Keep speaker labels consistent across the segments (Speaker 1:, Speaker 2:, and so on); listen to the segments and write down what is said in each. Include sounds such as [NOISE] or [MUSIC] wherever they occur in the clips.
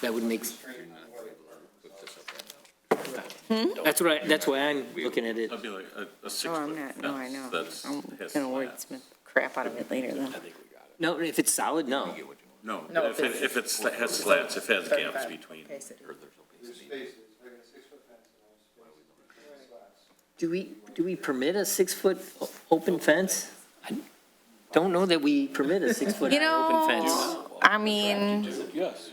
Speaker 1: That would make. That's right, that's why I'm looking at it.
Speaker 2: That'd be like a, a six
Speaker 3: No, Oh, I'm not,
Speaker 2: foot
Speaker 3: no, I
Speaker 2: fence
Speaker 3: know.
Speaker 2: That's
Speaker 3: I'm
Speaker 2: his
Speaker 3: gonna
Speaker 2: flat.
Speaker 3: wordsmith the crap out of it later then.
Speaker 1: No, if it's solid, no.
Speaker 2: No,
Speaker 4: No,
Speaker 2: if it,
Speaker 4: it's-
Speaker 2: if it's, has slats, if it has gaps between.
Speaker 5: There's spaces, like a six-foot fence and all spaces. between slats.
Speaker 1: Do we, do we permit a six-foot o- open fence? I Don't know that we permit [LAUGHS] a six-foot
Speaker 3: You
Speaker 1: open fence.
Speaker 3: know, I mean,
Speaker 6: Yes.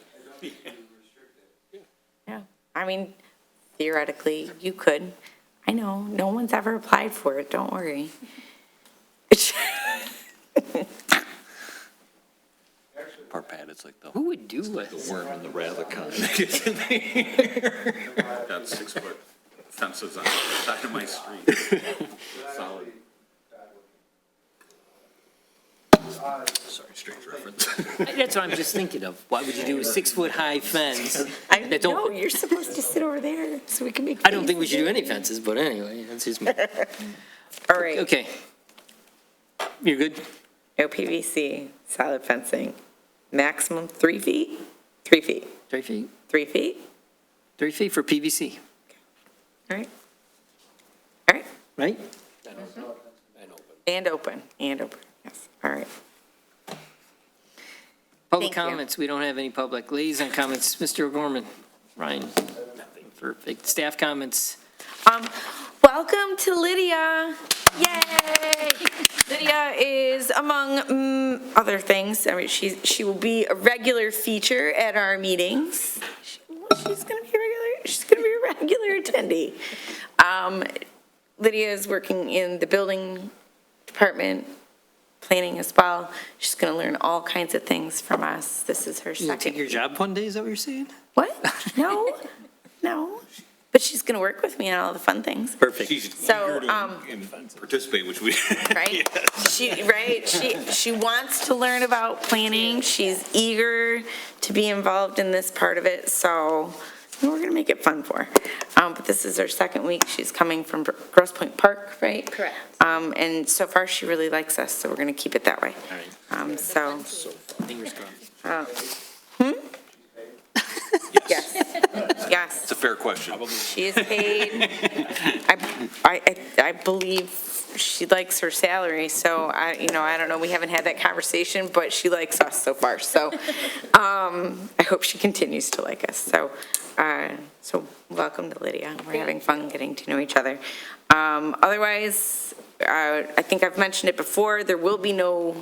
Speaker 3: I mean theoretically, you could. I know, no one's ever applied for it, don't worry. [LAUGHS]
Speaker 6: Part pad, it's like the
Speaker 1: Who would do it?
Speaker 6: worm and the rather kind.
Speaker 2: Got six foot fences on the side of my street. Solid.
Speaker 6: Sorry, strange reference. [LAUGHS]
Speaker 1: That's what I'm just thinking of. Why would you do a six-foot-high fence?
Speaker 3: I
Speaker 1: That's
Speaker 3: know,
Speaker 1: open.
Speaker 3: you're supposed to sit over there so we can make.
Speaker 1: I don't think we should do any fences, but anyway, that's just me.
Speaker 3: All right,
Speaker 1: [LAUGHS] Okay. You're good?
Speaker 3: no PVC, solid fencing, maximum three feet, three feet,
Speaker 1: Three feet?
Speaker 3: three feet,
Speaker 1: Three feet for PVC,
Speaker 3: all right? All right,
Speaker 1: right?
Speaker 3: and open, and open, yes, all right.
Speaker 1: Public
Speaker 3: Thank you.
Speaker 1: comments, we don't have any public liaison comments. Mr. O'Gorman, Ryan, perfect. Staff comments,
Speaker 4: Um, welcome to Lydia. Yay! Lydia is among mm, other things, I mean, she's, she will be a regular feature at our meetings. She- She's gonna be a regular, she's gonna be a regular attendee. Um, Lydia is working in the building department, planning as well. She's gonna learn all kinds of things from us. This is her
Speaker 1: you gonna take
Speaker 4: second
Speaker 1: your job one day, is that what you're saying?
Speaker 4: what?
Speaker 1: [LAUGHS]
Speaker 4: No, no. But she's going to work with me on all the fun things.
Speaker 1: Perfect.
Speaker 7: She's
Speaker 4: So,
Speaker 7: eager to
Speaker 4: um,
Speaker 7: in- participate, which we,
Speaker 4: Right? She, right? She, she wants to learn about planning. She's eager to be involved in this part of it. So we're going to make it fun for her. Um, but this is her second week. She's coming from Gr- Grosse Point Park, right?
Speaker 8: Correct.
Speaker 4: Um, and so far she really likes us, so we're going to keep it that way.
Speaker 1: All right,
Speaker 4: Um, so, Uh, hmm?
Speaker 1: fingers crossed.
Speaker 4: yes, yes.
Speaker 7: it's a fair question.
Speaker 4: She is paid, I, I, I believe she likes her salary, so I, you know, I don't know, we haven't had that conversation, but she likes us so far, so, um, I hope she continues to like us, so, uh, so welcome to Lydia, we're having fun getting to know each other. Um, otherwise, uh, I think I've mentioned it before, there will be no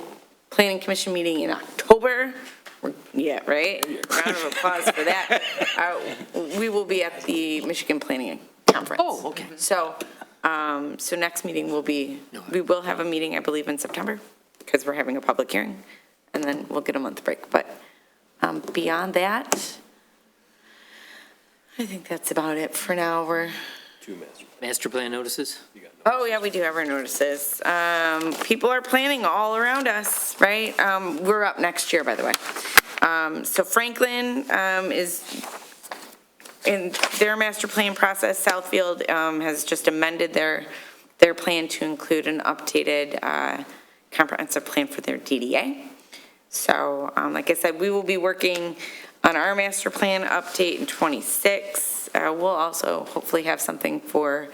Speaker 4: planning commission meeting in October. We're- Yeah, right? Round of applause
Speaker 1: [LAUGHS]
Speaker 4: for that. Uh, We will be at the Michigan Planning Conference.
Speaker 1: Oh, okay.
Speaker 4: So, um, so next meeting will be,
Speaker 1: No.
Speaker 4: we will have a meeting, I believe, in September, because we're having a public hearing, and then we'll get a month break. But um, beyond that, I think that's about it for now. We're,
Speaker 1: Master plan notices?
Speaker 4: Oh, yeah, we do have our notices. Um, people are planning all around us, right? Um, we're up next year, by the way. Um, so Franklin, um, is in their master plan process, Southfield, um, has just amended their, their plan to include an updated, uh, comprehensive plan for their DDA. So, um, like I said, we will be working on our master plan update in '26. Uh, we'll also hopefully have something for,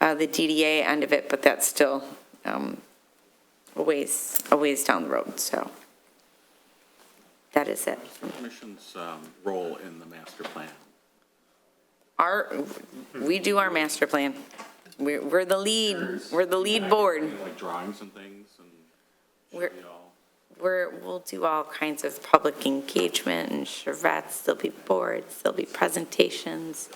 Speaker 4: uh, the DDA end of it, but that's still, um, a ways, a ways down the road, so. That is it.
Speaker 2: Commission's, um, role in the master plan.
Speaker 4: Our, we do our master plan. We're, we're the lead, we're the lead board.
Speaker 2: Like drawings and things and
Speaker 4: We're,
Speaker 2: should be all.
Speaker 4: we're, we'll do all kinds of public engagement and charrettes, there'll be boards, there'll be presentations.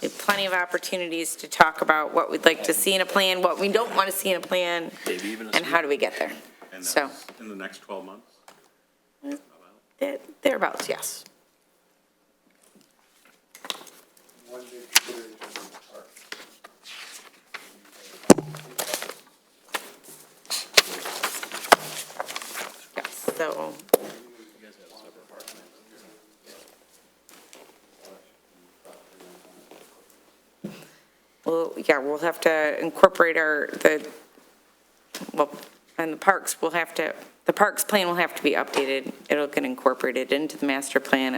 Speaker 4: We have Plenty of opportunities to talk about what we'd like to see in a plan, what we don't want to see in a plan, and how do we get there.
Speaker 2: And uh,
Speaker 4: So.
Speaker 2: that's in the next twelve months?
Speaker 4: There- Thereabouts, yes.
Speaker 5: One big consideration is the park.
Speaker 4: Yes, so. Well, yeah, we'll have to incorporate our, the, well, and the parks will have to, the parks plan will have to be updated. It'll get incorporated into the master plan